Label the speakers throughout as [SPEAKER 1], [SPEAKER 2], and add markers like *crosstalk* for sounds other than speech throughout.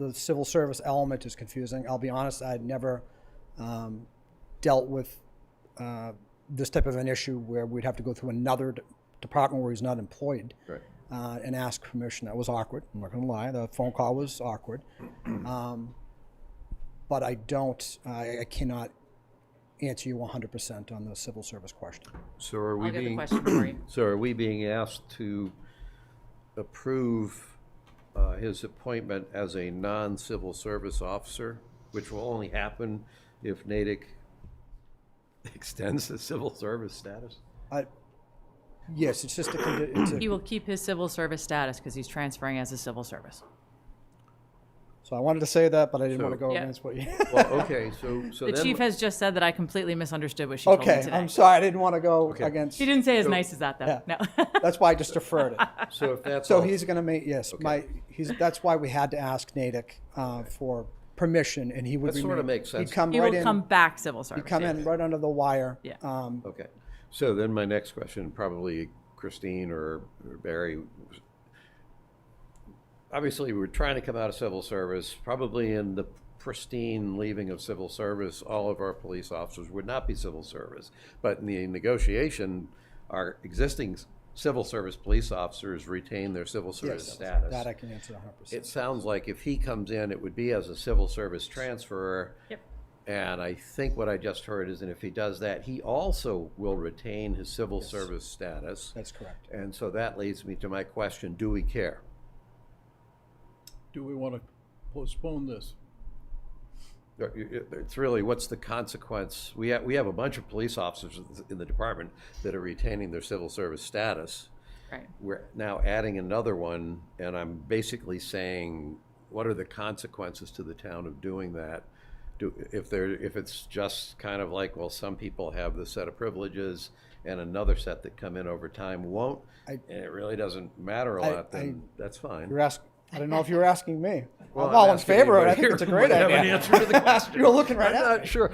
[SPEAKER 1] the civil service element is confusing. I'll be honest, I'd never um, dealt with uh, this type of an issue where we'd have to go through another d- department where he's not employed
[SPEAKER 2] Right.
[SPEAKER 1] uh, and ask permission. That was awkward. I'm not going to lie. The phone call was
[SPEAKER 2] *clears throat*
[SPEAKER 1] awkward. Um, but I don't, I, I cannot answer you 100% on the civil service question.
[SPEAKER 2] So are we
[SPEAKER 3] I'll get the
[SPEAKER 2] being,
[SPEAKER 3] question for you.
[SPEAKER 2] so are we being asked to approve uh, his appointment as a non-civil service officer, which will only happen if Natick *laughs* extends the civil service
[SPEAKER 3] *laughs*
[SPEAKER 2] status?
[SPEAKER 1] I, yes, it's just a, condi- it's
[SPEAKER 3] He
[SPEAKER 1] a,
[SPEAKER 3] will keep his civil service status because he's transferring as a civil service.
[SPEAKER 1] so I wanted to say that, but I didn't want to
[SPEAKER 2] So-
[SPEAKER 1] go
[SPEAKER 3] Yeah.
[SPEAKER 1] against what you.
[SPEAKER 2] Well, okay, so, so
[SPEAKER 3] The
[SPEAKER 2] then.
[SPEAKER 3] chief has just said that I completely misunderstood what she told me
[SPEAKER 1] okay,
[SPEAKER 3] today.
[SPEAKER 1] I'm sorry. I didn't want to go against.
[SPEAKER 3] She didn't say as nice as that, though.
[SPEAKER 1] Yeah.
[SPEAKER 3] *laughs* No.
[SPEAKER 1] That's why I just deferred
[SPEAKER 3] *laughs*
[SPEAKER 1] it.
[SPEAKER 2] So if that's.
[SPEAKER 1] So
[SPEAKER 2] all-
[SPEAKER 1] he's going to make, yes, my, he's, that's why we had to ask Natick uh, for permission and he would
[SPEAKER 2] That sorta
[SPEAKER 1] remain-
[SPEAKER 2] makes sense.
[SPEAKER 1] He'd come
[SPEAKER 3] He
[SPEAKER 1] right
[SPEAKER 3] will come
[SPEAKER 1] in,
[SPEAKER 3] back civil service.
[SPEAKER 1] come in right under the wire.
[SPEAKER 3] Yeah.
[SPEAKER 1] Um,
[SPEAKER 2] Okay, so then my next question, probably Christine or or Barry. Obviously, we're trying to come out of civil service, probably in the pristine leaving of civil service, all of our police officers would not be civil service. But in the negotiation, our existing s- civil service police officers retain their civil service
[SPEAKER 1] Yes,
[SPEAKER 2] status.
[SPEAKER 1] that I can answer hundred percent.
[SPEAKER 2] It sounds like if he comes in, it would be as a civil service transferer.
[SPEAKER 3] Yep.
[SPEAKER 2] And I think what I just heard is that if he does that, he also will retain his civil service status.
[SPEAKER 1] That's correct.
[SPEAKER 2] And so that leads me to my question, do we care?
[SPEAKER 4] Do we want to postpone this?
[SPEAKER 2] It- it- Uh, It's really, what's the consequence? We have, we have a bunch of police officers in the department that are retaining their civil service status.
[SPEAKER 3] Right.
[SPEAKER 2] We're now adding another one, and I'm basically saying, what are the consequences to the town of doing that? Do, if there, if it's just kind of like, well, some people have this set of privileges and another set that come in over time won't,
[SPEAKER 1] I-
[SPEAKER 2] and it really doesn't matter a
[SPEAKER 1] I-
[SPEAKER 2] lot, then that's fine.
[SPEAKER 1] You're asking, I don't know if you were asking me.
[SPEAKER 2] Well,
[SPEAKER 1] I'm all
[SPEAKER 2] I'm
[SPEAKER 1] in
[SPEAKER 2] asking
[SPEAKER 1] favor of it. I
[SPEAKER 2] anybody
[SPEAKER 1] think it's a
[SPEAKER 2] here
[SPEAKER 1] great
[SPEAKER 2] who might have an
[SPEAKER 1] idea.
[SPEAKER 2] answer to
[SPEAKER 1] *laughs*
[SPEAKER 2] the question.
[SPEAKER 1] You were looking right
[SPEAKER 2] I'm
[SPEAKER 1] at
[SPEAKER 2] not
[SPEAKER 1] me. *laughs*
[SPEAKER 2] sure.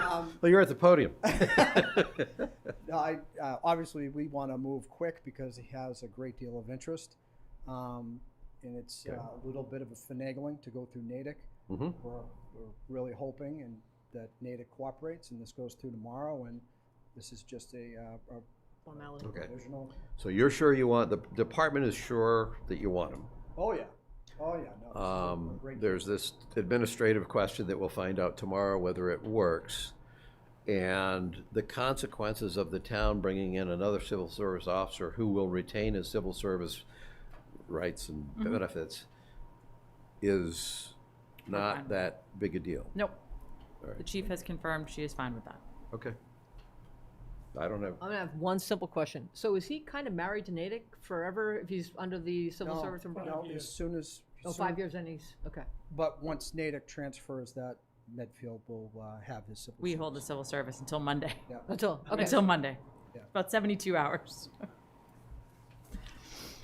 [SPEAKER 3] Um,
[SPEAKER 2] Well, you're at the podium.
[SPEAKER 1] No, I, uh, obviously, we want to move quick because he has a great deal of interest. Um, and it's uh, a little bit of a finagling to go through Natick.
[SPEAKER 2] Mhm.
[SPEAKER 1] We're, we're really hoping and that Natick cooperates and this goes through tomorrow and this is just a, uh, a
[SPEAKER 2] Okay,
[SPEAKER 1] provisional.
[SPEAKER 2] so you're sure you want, the department is sure that you want them?
[SPEAKER 1] Oh, yeah. Oh, yeah. No,
[SPEAKER 2] Um,
[SPEAKER 1] Great.
[SPEAKER 2] there's this administrative question that we'll find out tomorrow whether it works. And the consequences of the town bringing in another civil service officer who will retain his civil service rights and benefits is
[SPEAKER 3] Okay.
[SPEAKER 2] not that big a deal.
[SPEAKER 3] Nope.
[SPEAKER 2] All
[SPEAKER 3] The
[SPEAKER 2] right,
[SPEAKER 3] chief has confirmed she is fine with that.
[SPEAKER 2] okay. I don't have,
[SPEAKER 5] I'm gonna have one simple question. So is he kind of married to Natick forever if he's under the civil
[SPEAKER 1] No,
[SPEAKER 5] service? umbrella?
[SPEAKER 1] no, as soon as.
[SPEAKER 5] Oh,
[SPEAKER 1] soon-
[SPEAKER 5] five years and he's, okay.
[SPEAKER 1] But once Natick transfers that, Medfield will uh, have his. civil
[SPEAKER 3] We
[SPEAKER 1] service.
[SPEAKER 3] hold the civil service until Monday.
[SPEAKER 5] Until,
[SPEAKER 3] *laughs*
[SPEAKER 5] okay.
[SPEAKER 3] Until Monday.
[SPEAKER 1] Yeah.
[SPEAKER 3] About 72 hours.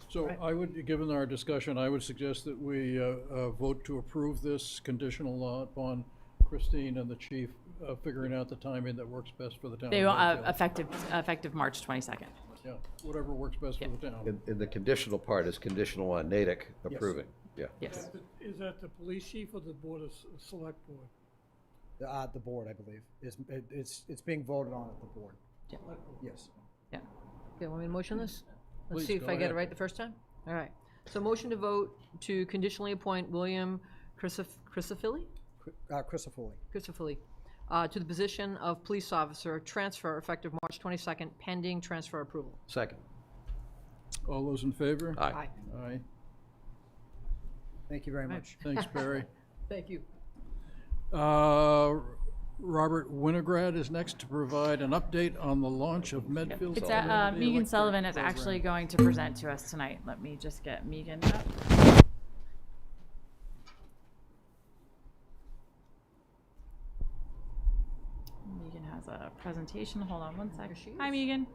[SPEAKER 4] So I would, given our discussion, I would suggest that we uh, uh, vote to approve this conditional uh, upon Christine and the chief uh, figuring out the timing that works best for the town.
[SPEAKER 3] They,
[SPEAKER 4] of
[SPEAKER 3] uh,
[SPEAKER 4] Medfield.
[SPEAKER 3] effective, effective March 22nd.
[SPEAKER 4] Yeah, Whatever works best for the town.
[SPEAKER 2] and, and the conditional part is conditional on Natick approving, yeah.
[SPEAKER 3] Yes.
[SPEAKER 6] Is that the police chief or the board of S- select board?
[SPEAKER 1] Uh, the board, I believe, is, it- it's, it's being voted on at the board.
[SPEAKER 3] Yeah.
[SPEAKER 1] Yes.
[SPEAKER 3] Yeah.
[SPEAKER 5] Okay, want me to motion this? Let's
[SPEAKER 4] Please,
[SPEAKER 5] see if
[SPEAKER 4] go
[SPEAKER 5] I get it
[SPEAKER 4] ahead.
[SPEAKER 5] right the first time. All right. So motion to vote to conditionally appoint William Crisif- Crisafilli?
[SPEAKER 1] Uh, Christopherly.
[SPEAKER 5] Crisafilli, uh, to the position of police officer, transfer effective March 22nd, pending transfer approval.
[SPEAKER 2] Second,
[SPEAKER 4] All those in favor?
[SPEAKER 2] Aye.
[SPEAKER 5] Aye.
[SPEAKER 4] Aye.
[SPEAKER 1] Thank you very much.
[SPEAKER 4] Thanks, Barry. *laughs*
[SPEAKER 5] Thank you.
[SPEAKER 4] Uh, Robert Winograd is next to provide an update on the launch of Medfield.
[SPEAKER 3] It's, uh, uh, Megan Sullivan is actually going to present to us tonight. Let me just get Megan up. Megan has a presentation. Hold on one sec.
[SPEAKER 5] she
[SPEAKER 3] Hi,
[SPEAKER 5] is.
[SPEAKER 3] Megan.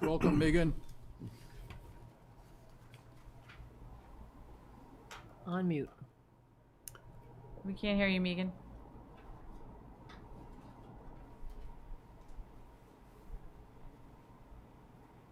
[SPEAKER 4] Welcome, Megan.
[SPEAKER 5] On mute.
[SPEAKER 3] We can't hear you, Megan.